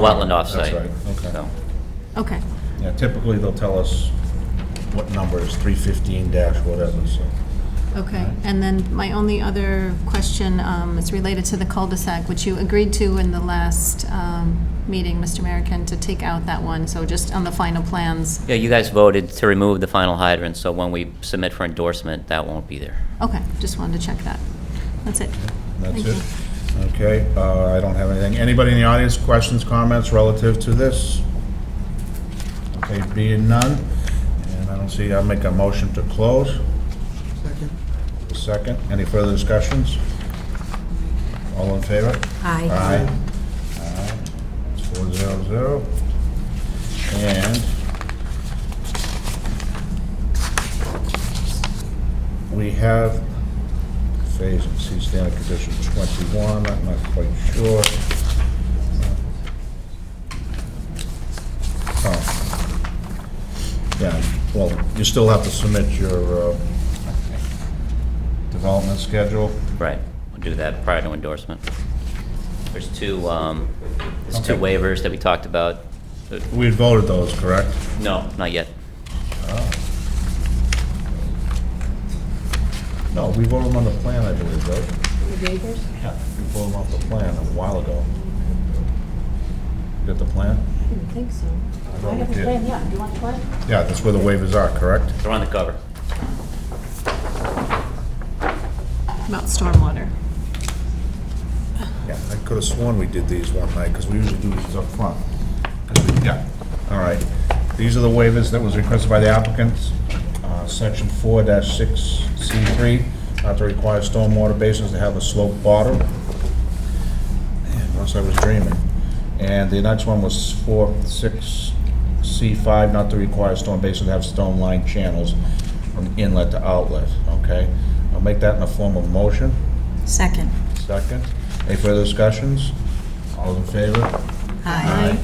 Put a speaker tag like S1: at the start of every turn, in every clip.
S1: Wetland offsite.
S2: That's right, okay.
S1: So,
S3: Okay,
S2: Yeah, typically they'll tell us what number is 315 dash whatever, so.
S3: okay. And then my only other question um, is related to the cul-de-sac, which you agreed to in the last um, meeting, Mr. American, to take out that one, so just on the final plans.
S1: Yeah, you guys voted to remove the final hydrant, so when we submit for endorsement, that won't be there.
S3: Okay, just wanted to check that. That's it.
S2: That's it?
S3: Thank you.
S2: Okay, uh, I don't have anything. Anybody in the audience, questions, comments relative to this? Okay, being none, and I don't see, I'll make a motion to close. Second. Second, any further discussions? All in favor?
S3: Aye.
S2: Aye. Aye. It's Four zero zero. And we have phase and C standard condition 21, I'm not quite sure. Uh, Oh. Yeah, well, you still have to submit your uh, development schedule.
S1: Right, we'll do that prior to endorsement. There's two, um, there's two
S2: Okay.
S1: waivers that we talked about. Uh,
S2: We had voted those, correct?
S1: No, not yet.
S2: No, we voted them on the plan, I believe, right?
S4: The waivers?
S2: Yeah. We voted them off the plan a while ago. You Got the plan?
S4: I didn't think so.
S2: thought
S4: I
S2: we
S4: have a
S2: did.
S4: plan, yeah. Do you want the plan?
S2: Yeah, that's where the waivers are, correct?
S1: They're on the cover.
S3: About stormwater.
S2: Yeah, I could have sworn we did these one night, because we usually do these up front. 'Cause we- Yeah, all right. These are the waivers that was requested by the applicants. Uh, Section four six C three, not to require stormwater basins to have a sloped bottom. Man, Unless I was dreaming. And the next one was four, six, C five, not to require storm basin to have stone lined channels from inlet to outlet, okay? I'll make that in the form of motion.
S3: Second.
S2: Second. Any further discussions? All in favor?
S3: Aye.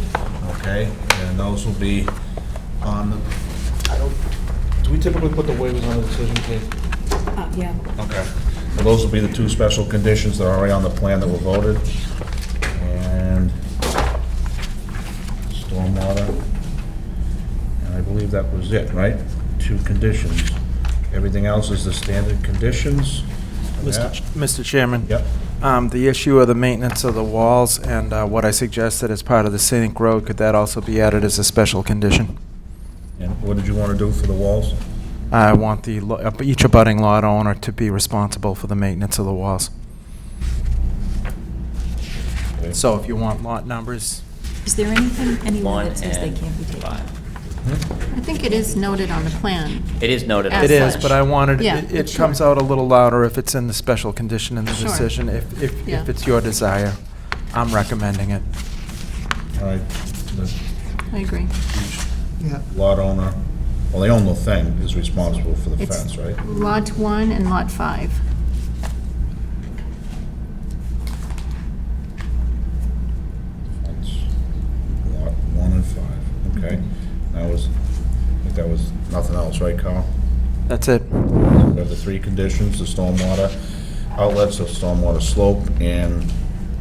S2: Okay, and those will be on the, I don't, do we typically put the waivers on the decision page?
S4: Uh, yeah.
S2: Okay. Well, those will be the two special conditions that are already on the plan that were voted. And stormwater. And I believe that was it, right? Two conditions. Everything else is the standard conditions.
S5: Mr. Ch- Mr. Chairman?
S2: Yep.
S5: Um, The issue of the maintenance of the walls and uh, what I suggested as part of the scenic road, could that also be added as a special condition?
S2: And what did you want to do for the walls?
S5: I want the, lo- uh, each abutting lot owner to be responsible for the maintenance of the walls.
S2: Okay.
S5: So if you want lot numbers,
S6: Is there anything anywhere
S1: One
S6: that says they
S1: and
S6: can't be taken?
S1: five.
S3: I think it is noted on the plan.
S1: It is noted. on
S5: it
S3: As
S1: the
S5: is,
S1: plan.
S3: such.
S5: but I wanted,
S3: Yeah,
S5: it- it
S3: sure.
S5: comes out a little louder if it's in the special condition in the
S3: Sure.
S5: decision, if, if
S3: Yeah.
S5: if it's your desire. I'm recommending it.
S2: All right, the-
S3: I agree.
S2: lot owner, well, the owner thing is responsible for the
S3: It's-
S2: fence, right?
S3: Lot 1 and Lot 5.
S2: Fence, Lot one and five, okay. That was, I think that was nothing else, right, Carl?
S5: That's it.
S2: We have the three conditions, the stormwater outlets, the stormwater slope, and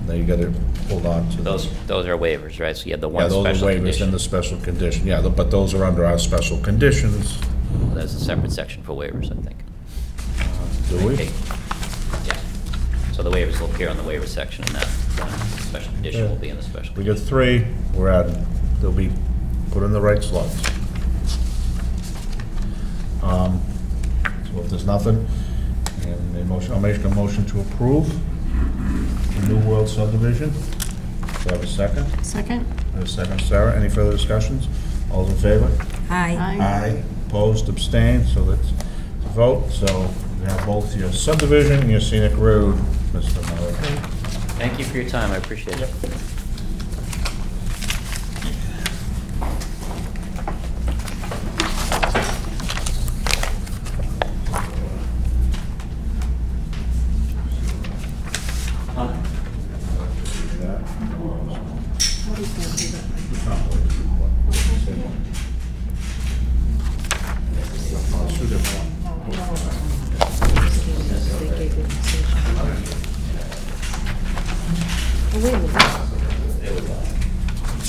S2: now you gotta hold on to
S1: Those,
S2: those.
S1: those are waivers, right? So you have the
S2: Yeah,
S1: one
S2: those are
S1: special
S2: waivers and
S1: condition.
S2: the special condition, yeah, but those are under our special conditions,
S1: There's a separate section for waivers, I think.
S2: Uh, do we?
S1: Okay. Yeah. So the waivers will appear on the waiver section, and that uh, special condition will be in the special.
S2: We got three, we're adding, they'll be put in the right slots. Um, So if there's nothing, and a motion, I'll make a motion to approve the New World subdivision. Do I have a second?
S3: Second?
S2: I have a second, Sarah, any further discussions? All in favor?
S6: Aye.
S2: Aye. Opposed, abstained, so that's a vote, so we have both your subdivision and your scenic road, Mr. Mulligan.
S1: Thank you for your time, I appreciate it.
S4: They gave you the decision. Oh, wait a minute.